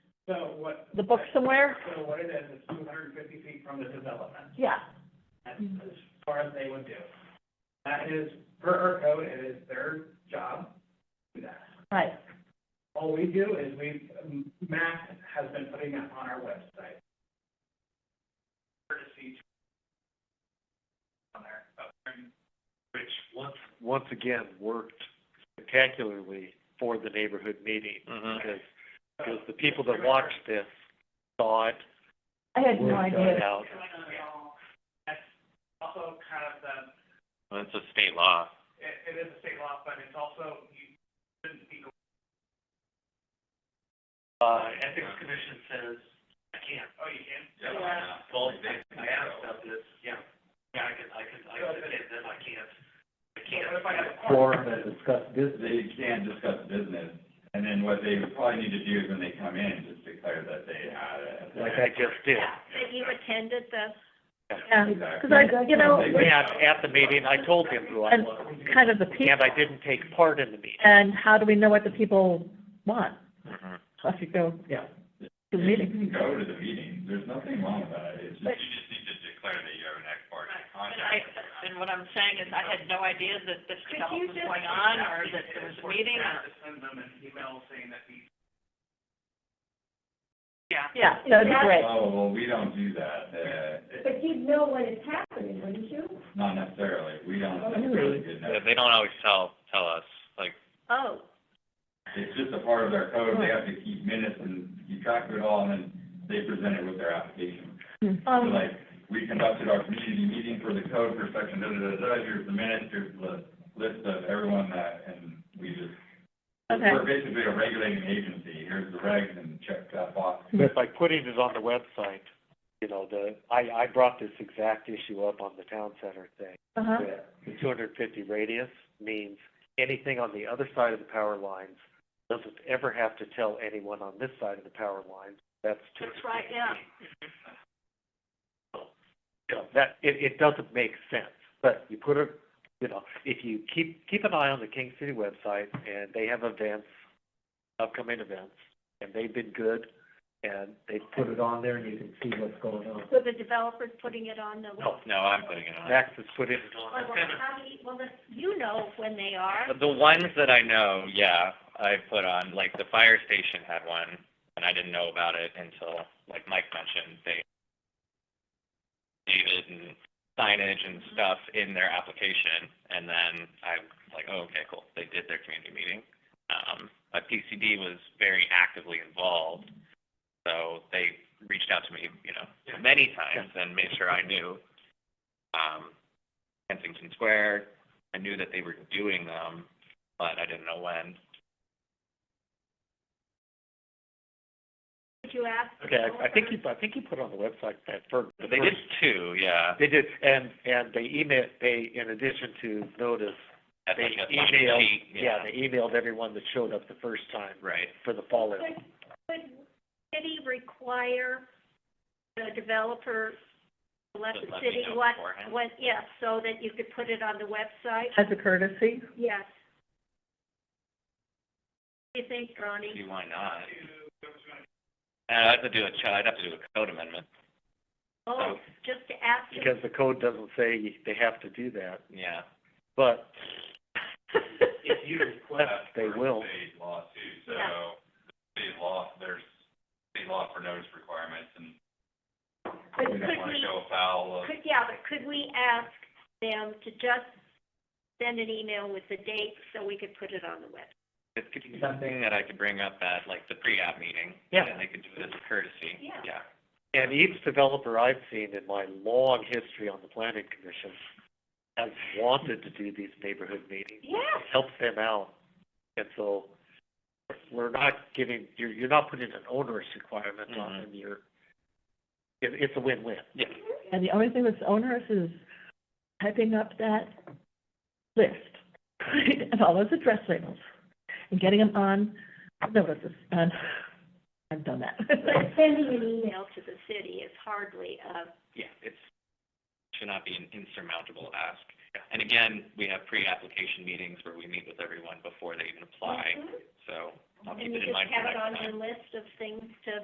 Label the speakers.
Speaker 1: So what?
Speaker 2: the book somewhere?
Speaker 1: So what it is, is two hundred and fifty feet from the development,
Speaker 2: Yeah.
Speaker 1: that's as far as they would do. That is, per our code, it is their job to do that.
Speaker 2: Right,
Speaker 1: All we do is we, um, Matt has been putting that on our website. Courtesy to- on there, up there in-
Speaker 3: which once, once again, worked spectacularly for the neighborhood meeting. Because, because the people that watched this saw it,
Speaker 2: I had
Speaker 3: word
Speaker 2: no
Speaker 3: got
Speaker 2: idea.
Speaker 3: out.
Speaker 1: That's also kind of the,
Speaker 3: Well, it's a state law.
Speaker 1: it, it is a state law, but it's also, you shouldn't be, going,
Speaker 3: Uh, ethics commission says, I can't.
Speaker 1: oh, you can?
Speaker 3: Well, I asked about this, yeah, yeah, I can, I can, I can, then I can't,
Speaker 1: So
Speaker 3: I
Speaker 1: What if I have a
Speaker 4: forum that discuss business. They can discuss business, and then what they probably need to do is when they come in, just declare that they had it.
Speaker 3: Like I just did.
Speaker 5: That you attended this?
Speaker 2: Yeah,
Speaker 4: Exactly.
Speaker 2: because um, I, you know,
Speaker 4: Exactly.
Speaker 3: Yeah, at the meeting, I told them who I
Speaker 2: and
Speaker 3: was,
Speaker 2: kind of the people,
Speaker 3: and I didn't take part in the meeting.
Speaker 2: and how do we know what the people want?
Speaker 3: Mm-hmm.
Speaker 2: Unless you go
Speaker 3: Yeah.
Speaker 2: to the
Speaker 4: You
Speaker 2: meeting.
Speaker 4: can go to the meeting, there's nothing wrong with that, it's just,
Speaker 2: But-
Speaker 4: you just need to declare that you're an ex parte
Speaker 5: And I,
Speaker 4: contact.
Speaker 5: and what I'm saying is I had no idea that this
Speaker 1: Could
Speaker 5: development
Speaker 1: you
Speaker 5: was
Speaker 1: just-
Speaker 5: going on or that there was a meeting or,
Speaker 1: Send them an email saying that we.
Speaker 5: yeah.
Speaker 2: Yeah, that'd be great.
Speaker 4: Oh, well, we don't do that, uh, it-
Speaker 6: But you'd know when it's happening, wouldn't you?
Speaker 4: not necessarily, we don't.
Speaker 2: Oh, really?
Speaker 4: They
Speaker 3: don't always tell, tell us, like.
Speaker 5: Oh,
Speaker 4: It's just a part of their code, they have to keep minutes and keep track of it all, and then they present it with their application. So
Speaker 2: Um,
Speaker 4: like, we conducted our community meeting for the code for section da, da, da, da, here's the minutes, here's the list of everyone that, and we just,
Speaker 2: Okay.
Speaker 4: we're basically a regulating agency, here's the regs, and check that box.
Speaker 3: But by putting it on the website, you know, the, I, I brought this exact issue up on the town center thing.
Speaker 2: uh-huh,
Speaker 3: that The two hundred and fifty radius means anything on the other side of the power lines doesn't ever have to tell anyone on this side of the power lines, that's two.
Speaker 5: that's right, yeah.
Speaker 3: You know, that, it, it doesn't make sense, but you put a, you know, if you keep, keep an eye on the King City website, and they have events, upcoming events, and they've been good, and they put it on there, and you can see what's going on.
Speaker 5: So the developer's putting it on the
Speaker 3: No,
Speaker 7: No, I'm putting it on.
Speaker 3: Max has put it on.
Speaker 5: how do you, well, then you know when they are.
Speaker 7: The ones that I know, yeah, I put on, like, the fire station had one, and I didn't know about it until, like Mike mentioned, they dated and signage and stuff in their application, and then I'm like, oh, okay, cool, they did their community meeting. Um, but PCD was very actively involved, so they reached out to me, you know, many times and made sure I knew. Um, Kensington Square, I knew that they were doing them, but I didn't know when.
Speaker 5: Did you ask? the
Speaker 3: Okay, I, I think
Speaker 5: developer?
Speaker 3: you, I think you put on the website that for.
Speaker 7: But they did two, yeah.
Speaker 3: They did, and, and they emailed, they, in addition to notice,
Speaker 7: That's
Speaker 3: they
Speaker 7: like a sign
Speaker 3: emailed,
Speaker 7: sheet,
Speaker 3: yeah, they emailed everyone that showed up the first time
Speaker 7: Right.
Speaker 3: for the fall in.
Speaker 5: Could, could city require the develer to let
Speaker 7: Just
Speaker 5: the
Speaker 7: let me
Speaker 5: city
Speaker 7: know
Speaker 5: what,
Speaker 7: beforehand.
Speaker 5: what, yes, so that you could put it on the website?
Speaker 2: as a courtesy.
Speaker 5: Yes. What do you think, Ronnie?
Speaker 7: See, why not? And I'd have to do a, ch- I'd have to do a code amendment,
Speaker 5: Oh, just to ask him.
Speaker 3: Because the code doesn't say they have to do that,
Speaker 7: yeah.
Speaker 3: but
Speaker 4: If you request.
Speaker 3: They
Speaker 4: for
Speaker 3: will.
Speaker 4: State law too, so,
Speaker 5: Yeah.
Speaker 4: state law, there's state law for notice requirements, and
Speaker 5: But
Speaker 4: we don't
Speaker 5: could
Speaker 4: wanna
Speaker 5: we-
Speaker 4: go afoul of,
Speaker 5: Could, yeah, but could we ask them to just send an email with the date so we could put it on the web?
Speaker 7: It could be something that I could bring up at, like, the pre-app meeting.
Speaker 3: Yeah.
Speaker 7: And they could do it as a courtesy.
Speaker 5: Yeah.
Speaker 7: Yeah.
Speaker 3: And each developer I've seen in my long history on the planning commission has wanted to do these neighborhood meetings.
Speaker 5: Yes.
Speaker 3: It helps them out. And so we're not giving, you're, you're not putting an onerous requirement on
Speaker 7: Mhm.
Speaker 3: them. You're, it, it's a win-win.
Speaker 7: Yeah.
Speaker 2: And the only thing that's onerous is typing up that list and all those address labels and getting them on notices. And I've done that.
Speaker 5: But sending an email to the city is hardly a
Speaker 7: Yeah, it's, should not be an insurmountable ask. And again, we have pre-application meetings where we meet with everyone before they even apply, so I'll keep it in
Speaker 5: Mm-hmm. And you just
Speaker 7: mind for
Speaker 5: have it
Speaker 7: next
Speaker 5: on
Speaker 7: time.
Speaker 5: your list of things to